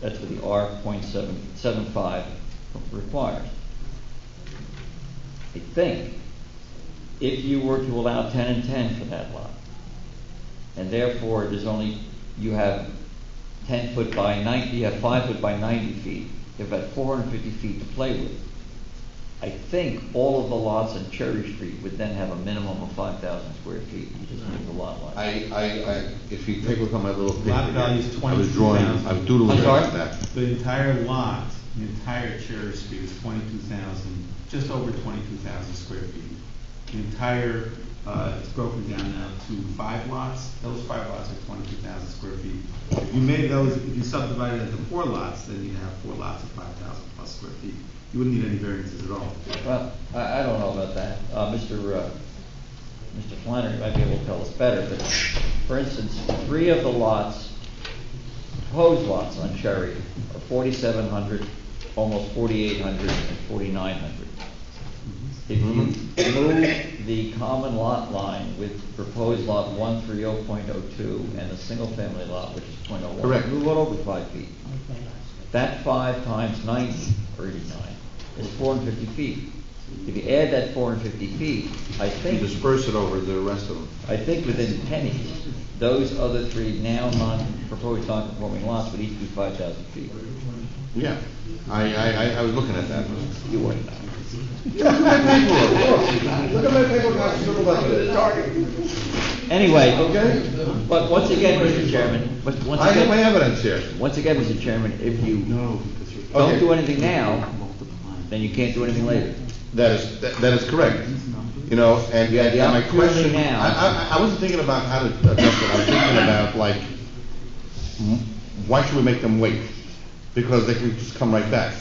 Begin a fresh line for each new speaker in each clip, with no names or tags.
That's what the R point seven, seven five requires. I think if you were to allow ten and ten for that lot, and therefore there's only, you have ten foot by ninety, you have five foot by ninety feet, you have about four hundred fifty feet to play with. I think all of the lots on Cherry Street would then have a minimum of five thousand square feet, you just need the lot line.
I, I, I, if you take a look at my little paper.
Lot value is
here, I was drawing, I was doodling
I'm sorry?
about that.
The entire lot, the entire Cherry Street is twenty-two thousand, just over twenty-two thousand square feet. The entire, uh, it's broken down now to five lots, those five lots are twenty-two thousand square feet. If you made those, if you subdivided it into four lots, then you'd have four lots of five thousand plus square feet. You wouldn't need any variances at all.
Well, I, I don't know about that. Uh, Mr. uh, Mr. Flannery might be able to tell us better, but for instance, three of the lots, proposed lots on Cherry are forty-seven hundred, almost forty-eight hundred, and forty-nine hundred. If you move the common lot line with proposed lot one three oh point oh two and the single-family lot, which is point oh one.
Correct.
Move it over five feet. That five times ninety, or eighty-nine, is four hundred fifty feet. If you add that four hundred fifty feet, I
You
think,
disperse it over the rest of them.
I think within pennies, those other three now non, proposed non-conforming lots would each be five thousand feet.
Yeah, I, I, I, I was looking at that.
You wouldn't know.
Look at my paper, I was doodling about
Anyway.
Okay.
But once again, Mr. Chairman, but once
I have my
again,
evidence here.
once again, Mr. Chairman, if you
No, because you're.
don't
Okay.
do anything now, then you can't do anything later.
That is, that that is correct. You know, and,
You have the
and my
opportunity
question,
now.
I, I, I wasn't thinking about how to address it, I was thinking about like, m- why should we make them wait? Because they can just come right back,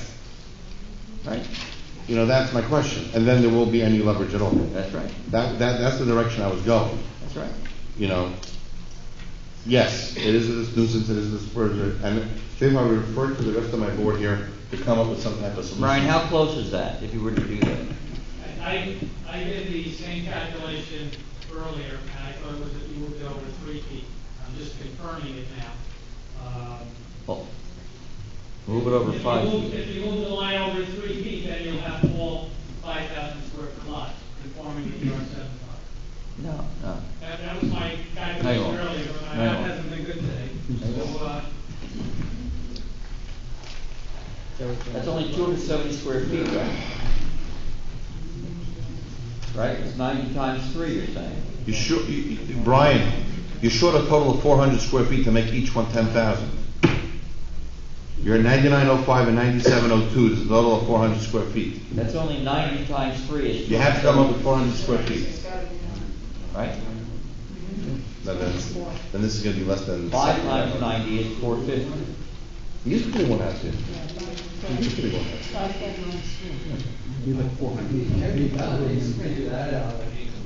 right? You know, that's my question, and then there won't be any leverage at all.
That's right,
That, that, that's the direction I was going,
that's right.
you know? Yes, it is a nuisance, it is a dispersion, and Dave, I refer to the rest of my board here to come up with some type of solution.
Brian, how close is that, if you were to do that?
I, I I did the same calculation earlier, and I thought it was, that you moved it over three feet. I'm just confirming it now. Um,
Well, Move it over
if you
five
move-
feet.
If you move the line over three feet, then you'll have all five thousand square foot lot conforming to your seven five.
No, no.
That, that was my calculation
Hang on.
earlier, but my
Hang
math
on.
hasn't been good today.
Hang
So, uh,
That's only two hundred seventy square feet, right? Right, it's ninety times three, you're saying?
You sure, you- you- Brian, you're short a total of four hundred square feet to make each one ten thousand. You're ninety-nine oh five and ninety-seven oh two, there's a total of four hundred square feet.
That's only ninety times three is.
You have to come up with four hundred square feet.
Right?
Then, that's- then this is gonna be less than.
Five times ninety is four fifty.
You just put it one out here. You just put it one out.
Be like four hundred.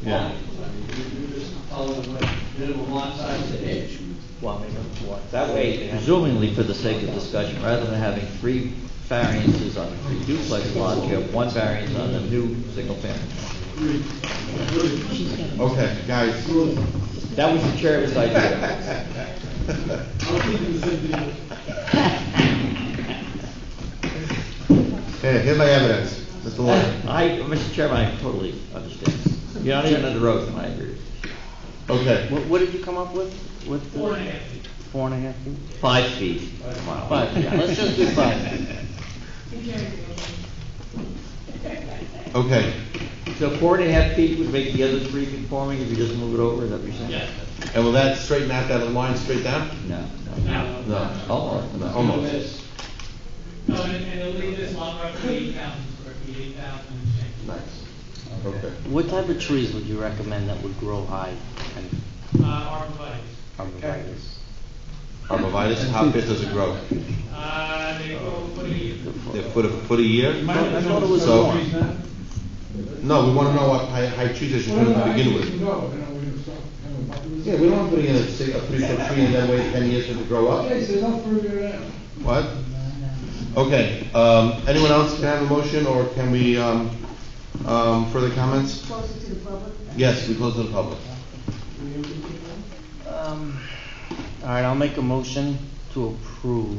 Yeah.
That way, presumably for the sake of discussion, rather than having three variances on the duplex lot, you have one variance on the new single family.
Okay, guys,
That was the chairman's idea.
here, here's my evidence, Mr. Lawyer.
I, Mr. Chairman, I totally understand. You're not even under oath, and I agree.
Okay.
What, what did you come up with? With
four and a
the
half feet.
four and a half feet?
Five feet.
Five, yeah, let's just do five.
Okay,
So four and a half feet would make the other three conforming if you just move it over, is that what you're saying?
Yes.
and will that straighten out that line straight down?
No, no.
Now,
No.
Almost,
No,
no.
Almost.
no, and and it'll leave this lot roughly eight thousand square feet, eight thousand and change.
Nice. Okay.
What type of trees would you recommend that would grow high and
Uh, arborvitae.
arborvitae's?
Arbovitus, how fast does it grow?
Uh, they go pretty,
A foot, a foot a year?
I thought it was
So-
more.
No, we want to know what high, high trees they should put in to begin with.
No, no, we're gonna stop. kind of-
Yeah, we don't want to put in a six, a three foot tree and then wait ten years for it to grow up.
Okay, so don't prove it out.
What? Okay, um, anyone else can have a motion or can we, um, um, further comments?
Close it to the public?
Yes, we close to the public.
Um, All right, I'll make a motion to approve